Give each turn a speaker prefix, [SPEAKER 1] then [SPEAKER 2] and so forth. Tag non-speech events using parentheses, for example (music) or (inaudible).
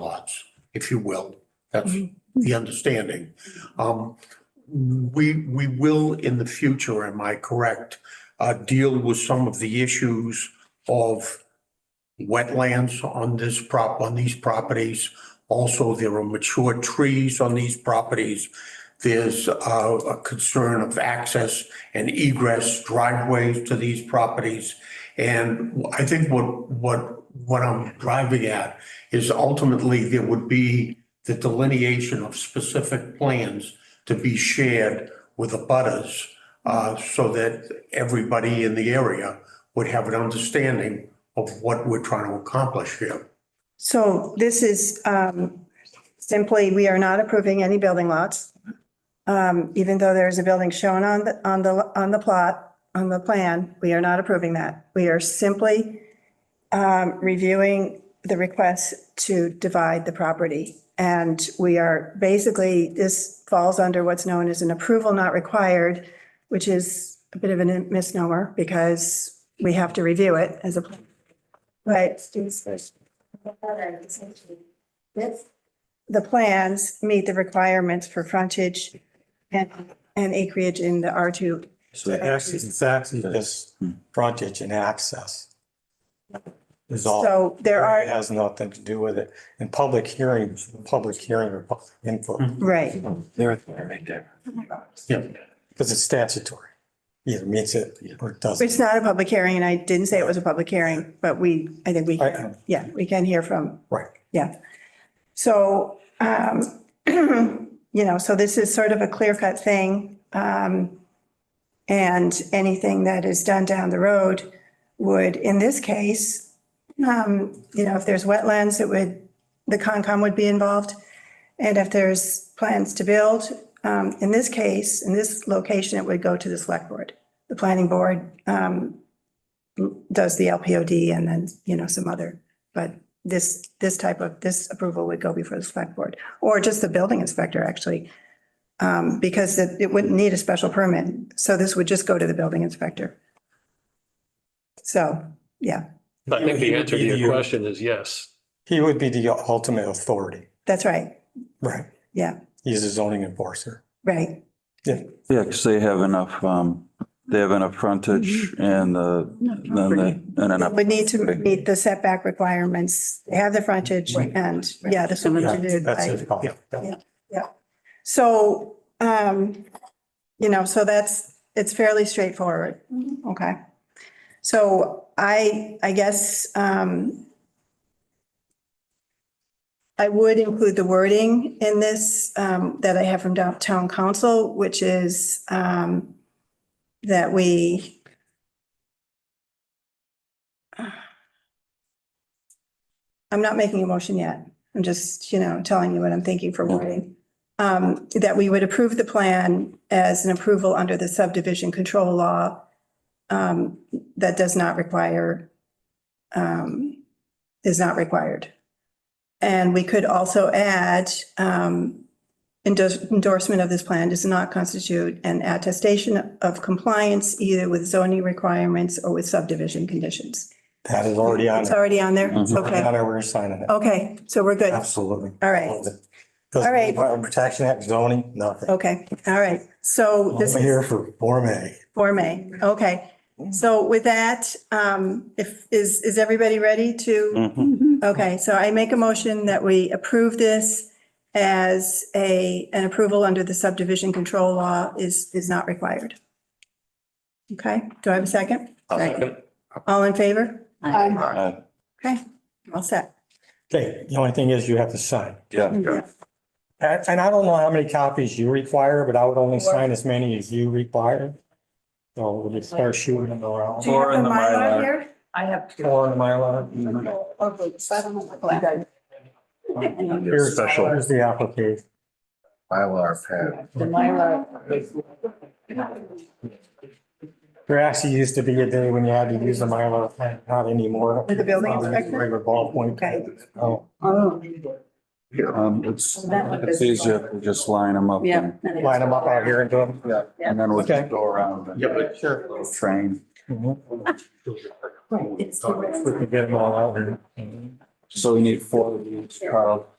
[SPEAKER 1] lots, if you will. That's the understanding. Um, we, we will in the future, am I correct, uh, deal with some of the issues of wetlands on this prop, on these properties. Also, there are mature trees on these properties. There's, uh, a concern of access and egress driveways to these properties. And I think what, what, what I'm driving at is ultimately there would be the delineation of specific plans to be shared with the butters, uh, so that everybody in the area would have an understanding of what we're trying to accomplish here.
[SPEAKER 2] So this is um, simply, we are not approving any building lots. Um, Even though there is a building shown on the, on the, on the plot, on the plan, we are not approving that. We are simply um, reviewing the request to divide the property. And we are, basically, this falls under what's known as an approval not required, which is a bit of a misnomer because we have to review it as a. Right, students first. The plans meet the requirements for frontage and, and acreage in the R2.
[SPEAKER 3] So the X is it's actually just frontage and access. Is all,
[SPEAKER 2] So there
[SPEAKER 3] it
[SPEAKER 2] are,
[SPEAKER 3] has nothing to do with it. And public hearings, public hearing or public input,
[SPEAKER 2] right,
[SPEAKER 4] There, there, right there.
[SPEAKER 3] because it's statutory. Either meets it or it
[SPEAKER 2] it's
[SPEAKER 3] doesn't.
[SPEAKER 2] not a public hearing, and I didn't say it was a public hearing, but we, I think we,
[SPEAKER 3] I-
[SPEAKER 2] yeah, we can hear from,
[SPEAKER 3] Right.
[SPEAKER 2] yeah. So, um, (clears throat) you know, so this is sort of a clear cut thing. Um, and anything that is done down the road would, in this case, um, you know, if there's wetlands, it would, the Concom would be involved. And if there's plans to build, um, in this case, in this location, it would go to the select board. The planning board, um, does the LPOD and then, you know, some other, but this, this type of, this approval would go before the select board, or just the building inspector, actually. Um, because it, it wouldn't need a special permit, so this would just go to the building inspector. So, yeah,
[SPEAKER 5] I think the answer to
[SPEAKER 3] You-
[SPEAKER 5] your question is yes.
[SPEAKER 3] He would be the ultimate authority.
[SPEAKER 2] that's right,
[SPEAKER 3] Right.
[SPEAKER 2] yeah,
[SPEAKER 3] He's a zoning enforcer.
[SPEAKER 2] right,
[SPEAKER 4] Yeah, because they have enough, um, they have enough frontage
[SPEAKER 6] Mm-hmm.
[SPEAKER 4] and the, then the, and enough.
[SPEAKER 2] would need to meet the setback requirements, have the frontage and, yeah, this would be
[SPEAKER 3] Yeah,
[SPEAKER 2] to do.
[SPEAKER 3] That's
[SPEAKER 2] by-
[SPEAKER 3] his call.
[SPEAKER 2] So, um, you know, so that's, it's fairly straightforward. Okay. So I, I guess, um, I would include the wording in this, um, that I have from downtown council, which is, um, that we I'm not making a motion yet. I'm just, you know, telling you what I'm thinking for wording um, that we would approve the plan as an approval under the subdivision control law um, that does not require, um, is not required. And we could also add, um, endorse- endorsement of this plan does not constitute an attestation of compliance either with zoning requirements or with subdivision conditions.
[SPEAKER 3] That is already on, Mm-hmm.
[SPEAKER 2] It's already on there?
[SPEAKER 4] Mhm.
[SPEAKER 3] already
[SPEAKER 2] Okay,
[SPEAKER 3] on our signing it.
[SPEAKER 2] okay, so we're good.
[SPEAKER 3] Absolutely.
[SPEAKER 2] All right,
[SPEAKER 3] All
[SPEAKER 2] right.
[SPEAKER 3] Protection Act zoning, nothing.
[SPEAKER 2] okay, all right. So Oh, this
[SPEAKER 3] I'm
[SPEAKER 2] is.
[SPEAKER 3] here for Form A.
[SPEAKER 2] Form A, okay. So with that, um, if, is, is everybody ready to?
[SPEAKER 4] Mhm.
[SPEAKER 2] Okay, so I make a motion that we approve this as a, an approval under the subdivision control law is, is not required. Okay, do I have a second?
[SPEAKER 5] second.
[SPEAKER 2] All in favor? Aye.
[SPEAKER 4] Uh,
[SPEAKER 2] Okay, all set.
[SPEAKER 3] Okay, the only thing is you have to sign.
[SPEAKER 4] Yeah,
[SPEAKER 2] Yeah.
[SPEAKER 3] And, and I don't know how many copies you require, but I would only sign as many as you require. So we'll just start shooting them around.
[SPEAKER 2] Do you have Mm-hmm.
[SPEAKER 4] Or in
[SPEAKER 2] a
[SPEAKER 4] the
[SPEAKER 2] Mylar
[SPEAKER 4] Mylar.
[SPEAKER 2] here?
[SPEAKER 6] I have.
[SPEAKER 3] Four in my line.
[SPEAKER 6] Oh,
[SPEAKER 3] Here's-
[SPEAKER 4] Special.
[SPEAKER 3] Here's the application.
[SPEAKER 7] Mylar pad.
[SPEAKER 6] The Mylar.
[SPEAKER 3] There actually used to be a day when you had to use a Mylar, pen, not anymore. Um,
[SPEAKER 2] With the building inspector?
[SPEAKER 3] Regular ballpoint.
[SPEAKER 2] Okay.
[SPEAKER 3] Oh,
[SPEAKER 6] Oh,
[SPEAKER 4] um, it's,
[SPEAKER 6] That one
[SPEAKER 4] it's
[SPEAKER 6] is-
[SPEAKER 4] easier if we just line them up
[SPEAKER 6] yeah.
[SPEAKER 4] and
[SPEAKER 3] line them up out here into them.
[SPEAKER 4] and then we'll
[SPEAKER 3] Okay.
[SPEAKER 4] just go around. and
[SPEAKER 1] Yeah, but-
[SPEAKER 3] Sure.
[SPEAKER 4] Train.
[SPEAKER 3] Mhm.
[SPEAKER 6] It's the-
[SPEAKER 3] We can get them all out here.
[SPEAKER 4] So we need four reviews, Carl.